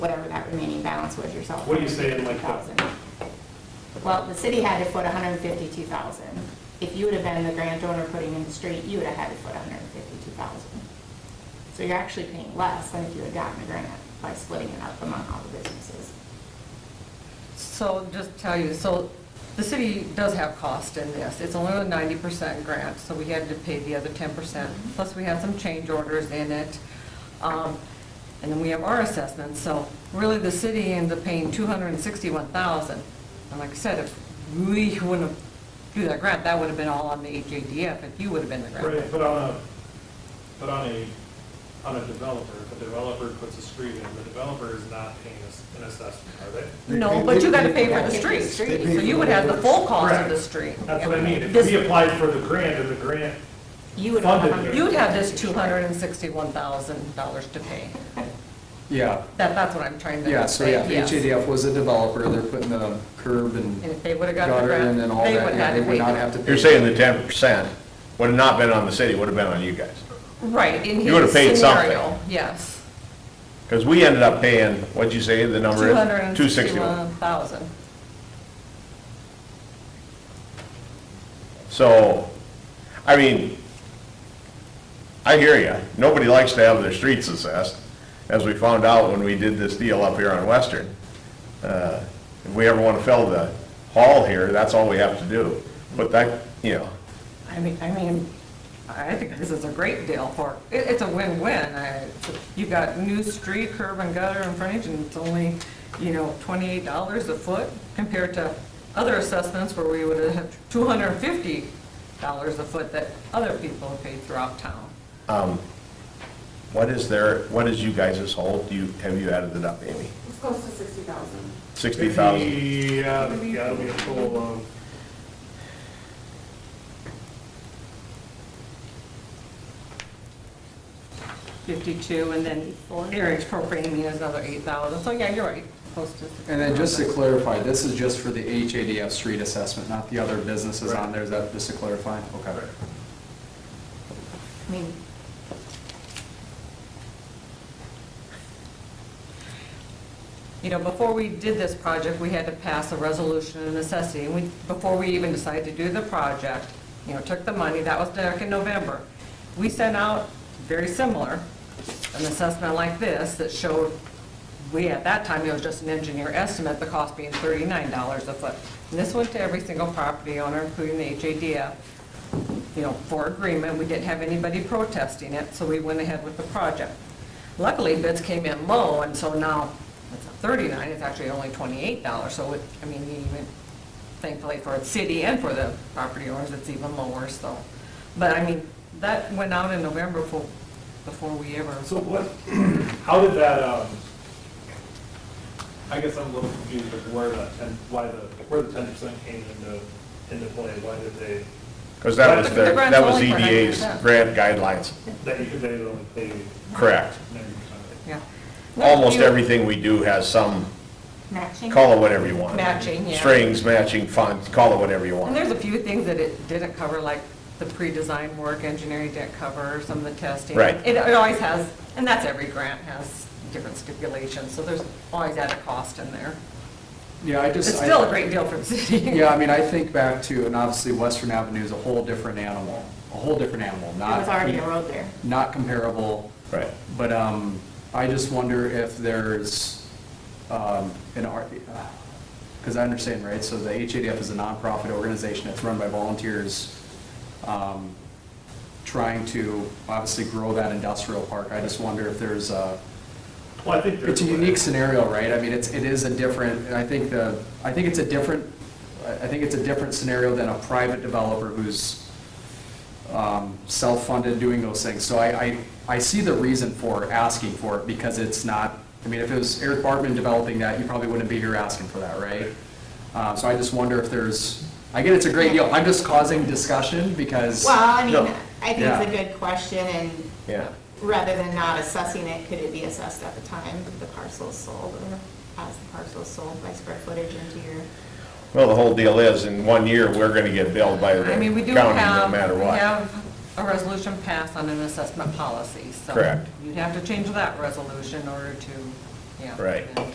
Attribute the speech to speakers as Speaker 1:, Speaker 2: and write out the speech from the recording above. Speaker 1: whatever that remaining balance was yourself.
Speaker 2: What are you saying, like the-
Speaker 1: 152,000. Well, the city had to put hundred and fifty-two thousand. If you would have been the grant donor putting in the street, you would have had to put hundred and fifty-two thousand. So you're actually paying less than if you had gotten a grant by splitting it up among all the businesses.
Speaker 3: So just tell you, so the city does have cost in this. It's only a ninety percent grant, so we had to pay the other ten percent. Plus, we had some change orders in it. Um, And then we have our assessments, so really the city ends up paying two hundred and sixty-one thousand. And like I said, if we wouldn't have do that grant, that would have been all on the HADF if you would have been the grant.
Speaker 2: Right, but on a, but on a, on a developer, if a developer puts a street in, the developer is not paying us an assessment, are they?
Speaker 3: No, but you gotta pay for the
Speaker 1: They
Speaker 3: street,
Speaker 1: pay
Speaker 3: so
Speaker 1: for the
Speaker 4: street.
Speaker 3: you would have the full cost of
Speaker 2: Correct.
Speaker 3: the street.
Speaker 2: That's what I mean, if
Speaker 3: This-
Speaker 2: we applied for the grant and the grant,
Speaker 1: You would have.
Speaker 2: Funded.
Speaker 1: 152,000.
Speaker 3: You'd have this two hundred and sixty-one thousand dollars to pay.
Speaker 5: Yeah,
Speaker 3: That, that's what I'm trying to say.
Speaker 5: yeah, so yeah,
Speaker 3: yes.
Speaker 5: HADF was a developer, they're putting the curb and
Speaker 3: And if they would've gotten the
Speaker 5: gutter
Speaker 3: grant,
Speaker 5: in and all
Speaker 3: they
Speaker 5: that,
Speaker 3: would've
Speaker 5: yeah,
Speaker 3: had
Speaker 5: they
Speaker 3: to pay.
Speaker 5: would not have to pay.
Speaker 6: You're saying the ten percent would have not been on the city, would have been on you guys.
Speaker 3: Right, in
Speaker 6: You would've paid
Speaker 3: his scenario,
Speaker 6: something.
Speaker 3: yes.
Speaker 6: Because we ended up paying, what'd you say the number
Speaker 3: Two
Speaker 6: is?
Speaker 3: hundred and sixty-one
Speaker 6: 261.
Speaker 3: thousand.
Speaker 6: So, I mean, I hear you. Nobody likes to have their streets assessed, as we found out when we did this deal up here on Western. Uh, If we ever want to fill the hall here, that's all we have to do. But that, you know,
Speaker 3: I mean, I mean, I think this is a great deal for, it, it's a win-win. I- You got new street, curb and gutter and frontage, and it's only, you know, twenty-eight dollars a foot compared to other assessments where we would have two hundred and fifty dollars a foot that other people have paid throughout town.
Speaker 6: what is their, what is you guys' whole, do you, have you added it up, Amy?
Speaker 7: It's close to sixty thousand.
Speaker 6: Sixty thousand?
Speaker 2: Yeah, yeah, it'll be a total of,
Speaker 3: Fifty-two, and then Eric's propane mean is another eight thousand. So, yeah, you're right, close to.
Speaker 5: And then just to clarify, this is just for the HADF street assessment, not the other businesses on there, is that just to clarify? Okay.
Speaker 1: I mean,
Speaker 3: You know, before we did this project, we had to pass a resolution of necessity, and we, before we even decided to do the project, you know, took the money, that was back in November. We sent out, very similar, an assessment like this that showed, we, at that time, it was just an engineer estimate, the cost being thirty-nine dollars a foot. And this went to every single property owner, including the HADF, you know, for agreement, we didn't have anybody protesting it, so we went ahead with the project. Luckily, bids came in low, and so now it's not 39, it's actually only $28, so it, I mean, even thankfully for the city and for the property owners, it's even lower, so. But I mean, that went out in November before, before we ever,
Speaker 2: so what, how did that, um, I guess I'm a little confused of where that ten, why the, where the ten percent came into, into play, why did they,
Speaker 6: Because that was
Speaker 2: The
Speaker 6: their,
Speaker 3: grant's
Speaker 6: that was
Speaker 3: only for
Speaker 6: EDA's
Speaker 3: 9%.
Speaker 6: grant guidelines,
Speaker 2: that you could, they only paid
Speaker 6: correct.
Speaker 2: ninety percent?
Speaker 3: yeah.
Speaker 6: Almost
Speaker 3: You-
Speaker 6: everything we do has some,
Speaker 1: matching.
Speaker 6: call it whatever you want.
Speaker 3: Matching, yeah.
Speaker 6: Strings, matching, fonts, call it whatever you
Speaker 3: And
Speaker 6: want.
Speaker 3: there's a few things that it didn't cover, like the pre-design work, engineering didn't cover, some of the testing.
Speaker 6: Right.
Speaker 3: It it always has, and that's every grant has different stipulations, so there's always added cost in there.
Speaker 5: Yeah, I just.
Speaker 3: It's
Speaker 5: I-
Speaker 3: still a great deal for the city.
Speaker 5: Yeah, I mean, I think back to, and obviously Western Avenue is a whole different animal, a whole different animal,
Speaker 1: There
Speaker 5: not.
Speaker 1: was already a road there.
Speaker 5: Not comparable.
Speaker 6: Right.
Speaker 5: But um, I just wonder if there's um, an art, because I understand, right, so the HADF is a nonprofit organization that's run by volunteers um, trying to obviously grow that industrial park. I just wonder if there's a,
Speaker 2: Well, I think there's.
Speaker 5: it's a unique scenario, right? I mean, it's, it is a different, and I think the, I think it's a different, I I think it's a different scenario than a private developer who's um, self-funded doing those things. So I, I, I see the reason for asking for it, because it's not, I mean, if it was Eric Bartman developing that, you probably wouldn't be here asking for that, right? Uh, So I just wonder if there's, I get it's a great deal, I'm just causing discussion because.
Speaker 1: Well, I mean,
Speaker 6: No.
Speaker 1: I think it's a good question, and
Speaker 6: Yeah.
Speaker 1: rather than not assessing it, could it be assessed at the time the parcel's sold, or as the parcel's sold by square footage into your?
Speaker 6: Well, the whole deal is, in one year, we're gonna get billed by the
Speaker 3: I
Speaker 6: county,
Speaker 3: mean, we do
Speaker 6: no
Speaker 3: have,
Speaker 6: matter
Speaker 3: we
Speaker 6: what.
Speaker 3: have a resolution passed on an assessment policy, so.
Speaker 6: Correct.
Speaker 3: You'd have to change that resolution in order to yeah.
Speaker 6: Right.
Speaker 3: yeah.